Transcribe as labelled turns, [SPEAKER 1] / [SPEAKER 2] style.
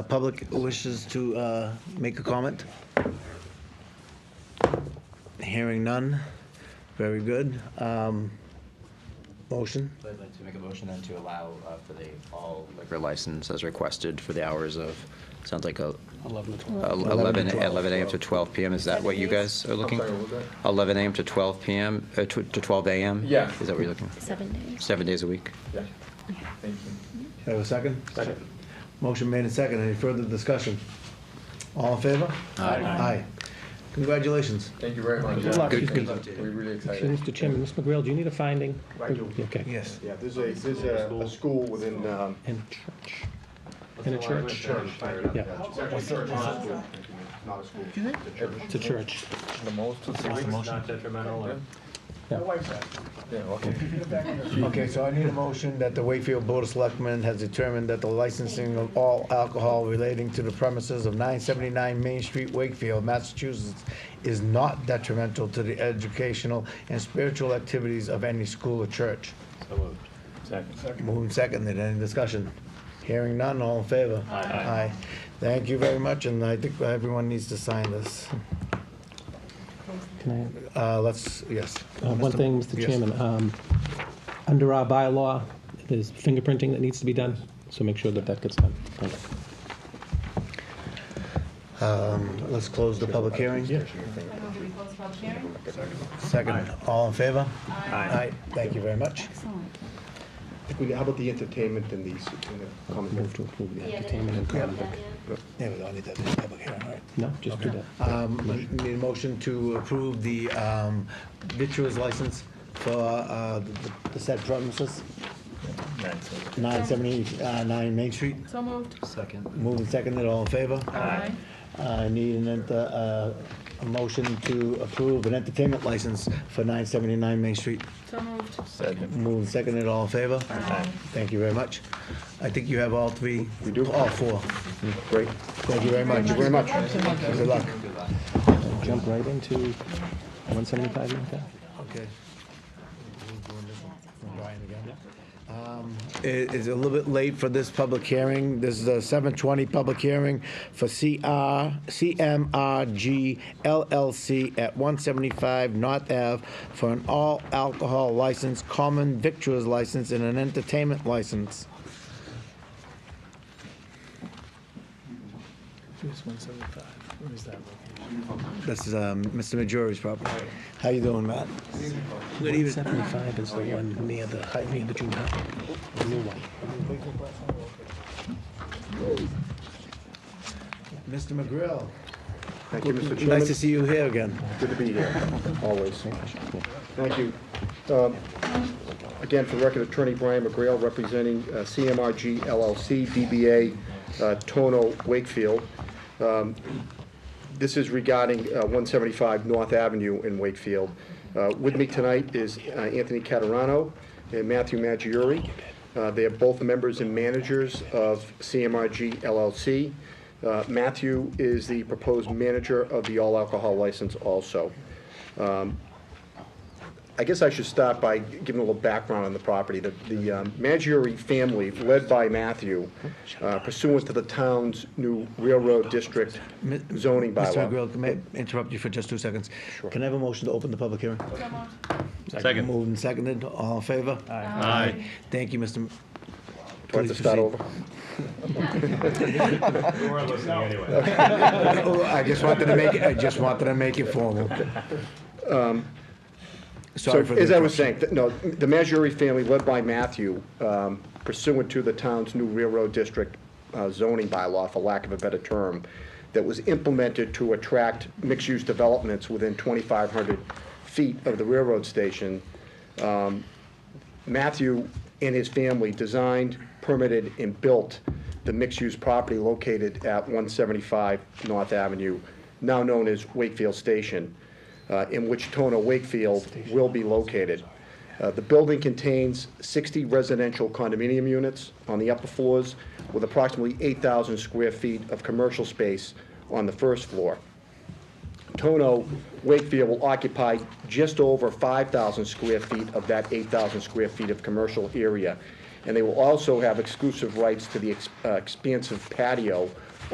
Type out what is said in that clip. [SPEAKER 1] The Public wishes to uh, make a comment? Hearing none. Very good. Um, Motion?
[SPEAKER 2] I'd like to make a motion then to allow uh, for the all liquor license as requested for the hours of, sounds like a,
[SPEAKER 3] 11 to 12.
[SPEAKER 2] a-
[SPEAKER 1] 11
[SPEAKER 2] 11,
[SPEAKER 1] to 12.
[SPEAKER 2] 11 AM to 12 PM, is that what you guys are looking? 11 AM to 12 PM, uh, to to 12 AM?
[SPEAKER 4] Yeah.
[SPEAKER 2] Is that what you're looking, for?
[SPEAKER 5] Seven days.
[SPEAKER 2] seven days a week?
[SPEAKER 4] Yeah, thank you.
[SPEAKER 1] Do I have a second? Motion made and second. Any further discussion? All in favor?
[SPEAKER 2] Aye.
[SPEAKER 1] Aye. Congratulations.
[SPEAKER 4] Thank you very much.
[SPEAKER 3] Good luck.
[SPEAKER 4] Thank
[SPEAKER 3] Good
[SPEAKER 4] you.
[SPEAKER 2] luck to you.
[SPEAKER 4] We're really
[SPEAKER 3] Excuse me, Mr.
[SPEAKER 4] excited.
[SPEAKER 3] Chairman, Mr. McGrail, do you need a finding?
[SPEAKER 4] I do.
[SPEAKER 3] Okay.
[SPEAKER 1] Yes.
[SPEAKER 6] Yeah, there's a, there's a, a school within, um,
[SPEAKER 3] And church. And a church. Yeah,
[SPEAKER 6] not a school.
[SPEAKER 3] it's a church.
[SPEAKER 4] The most.
[SPEAKER 7] Not detrimental or?
[SPEAKER 4] Yeah, okay.
[SPEAKER 1] Okay, so I need a motion that the Wakefield Board of Selectmen has determined that the licensing of all alcohol relating to the premises of 979 Main Street, Wakefield, Massachusetts, is not detrimental to the educational and spiritual activities of any school or church.
[SPEAKER 7] So moved. Second.
[SPEAKER 1] Moving seconded, any discussion? Hearing none, all in favor? Aye. Thank you very much, and I think everyone needs to sign this.
[SPEAKER 3] Can I?
[SPEAKER 1] Uh, Let's, yes.
[SPEAKER 3] Uh, One thing, Mr.
[SPEAKER 1] Yes.
[SPEAKER 3] Chairman, um, under our bylaw, there's fingerprinting that needs to be done, so make sure that that gets done. Thank you.
[SPEAKER 1] Let's close the public hearing. Second, all in favor? Aye. Thank you very much.
[SPEAKER 5] Excellent.
[SPEAKER 6] How about the entertainment and the, s- and the common?
[SPEAKER 3] Move to approve the entertainment and conduct.
[SPEAKER 1] There we go, I need that in the public hearing, all right.
[SPEAKER 3] No, just do that.
[SPEAKER 1] Um, Need a motion to approve the um, vitriol's license for uh, the the said premises, 979 Main Street.
[SPEAKER 5] So moved.
[SPEAKER 2] Second.
[SPEAKER 1] Moving seconded, all in favor?
[SPEAKER 5] Aye.
[SPEAKER 1] I need an ent- uh, a motion to approve an entertainment license for 979 Main Street.
[SPEAKER 5] So moved.
[SPEAKER 1] Moving seconded, all in favor?
[SPEAKER 5] Aye.
[SPEAKER 1] Thank you very much. I think you have all three. We do. All four.
[SPEAKER 6] Great.
[SPEAKER 1] Thank you very much.
[SPEAKER 5] Mm, Thank you very much.
[SPEAKER 1] Good luck.
[SPEAKER 3] Jump right into 175 Ninth Ave.
[SPEAKER 1] Okay. Um, It- It's a little bit late for this public hearing. This is a 7:20 public hearing for CR, CMRG LLC at 175 North Ave for an all-alcohol license, common victuals license, and an entertainment license. This is um, Mr. Majori's property. How you doing, Matt? Good evening.
[SPEAKER 3] 175 is the one near the, high- near the junior high. The new one.
[SPEAKER 1] Mr. McGrill.
[SPEAKER 6] Thank you, Mr.
[SPEAKER 1] Nice to
[SPEAKER 6] Chairman.
[SPEAKER 1] see you here again.
[SPEAKER 6] Good to be here, always. Thank you. Um, Again, for the record, Attorney Brian McGrail, representing uh, CMRG LLC, DBA uh, Tono Wakefield. Um, This is regarding uh, 175 North Avenue in Wakefield. Uh, With me tonight is uh, Anthony Catarano and Matthew Maggiore. Uh, They are both members and managers of CMRG LLC. Uh, Matthew is the proposed manager of the all-alcohol license also. I guess I should start by giving a little background on the property. The, the um, Maggiore family, led by Matthew, uh, pursuant to the town's new railroad district
[SPEAKER 1] Mi-
[SPEAKER 6] zoning
[SPEAKER 1] Mr.
[SPEAKER 6] bylaw.
[SPEAKER 1] McGrill, can I interrupt you for just two seconds? Can I have a motion to open the public hearing?
[SPEAKER 7] Second.
[SPEAKER 1] Moved and seconded, all in favor? Aye. Thank you, Mr. M-
[SPEAKER 6] Do I have to
[SPEAKER 1] Please
[SPEAKER 6] start
[SPEAKER 1] proceed.
[SPEAKER 6] over?
[SPEAKER 7] We weren't listening anyway.
[SPEAKER 1] Oh, I just wanted to make, it- I just wanted to make it formal. Sorry for
[SPEAKER 6] Um, So,
[SPEAKER 1] the.
[SPEAKER 6] as I was saying, th- no, the Maggiore family, led by Matthew, um, pursuant to the town's new railroad district uh, zoning bylaw, for lack of a better term, that was implemented to attract mixed-use developments within 2,500 feet of the railroad station, Matthew and his family designed, permitted, and built the mixed-use property located at 175 North Avenue, now known as Wakefield Station, uh, in which Tona Wakefield will be located. Uh, The building contains 60 residential condominium units on the upper floors with approximately 8,000 square feet of commercial space on the first floor. Tono Wakefield will occupy just over 5,000 square feet of that 8,000 square feet of commercial area. And they will also have exclusive rights to the ex- uh, expansive patio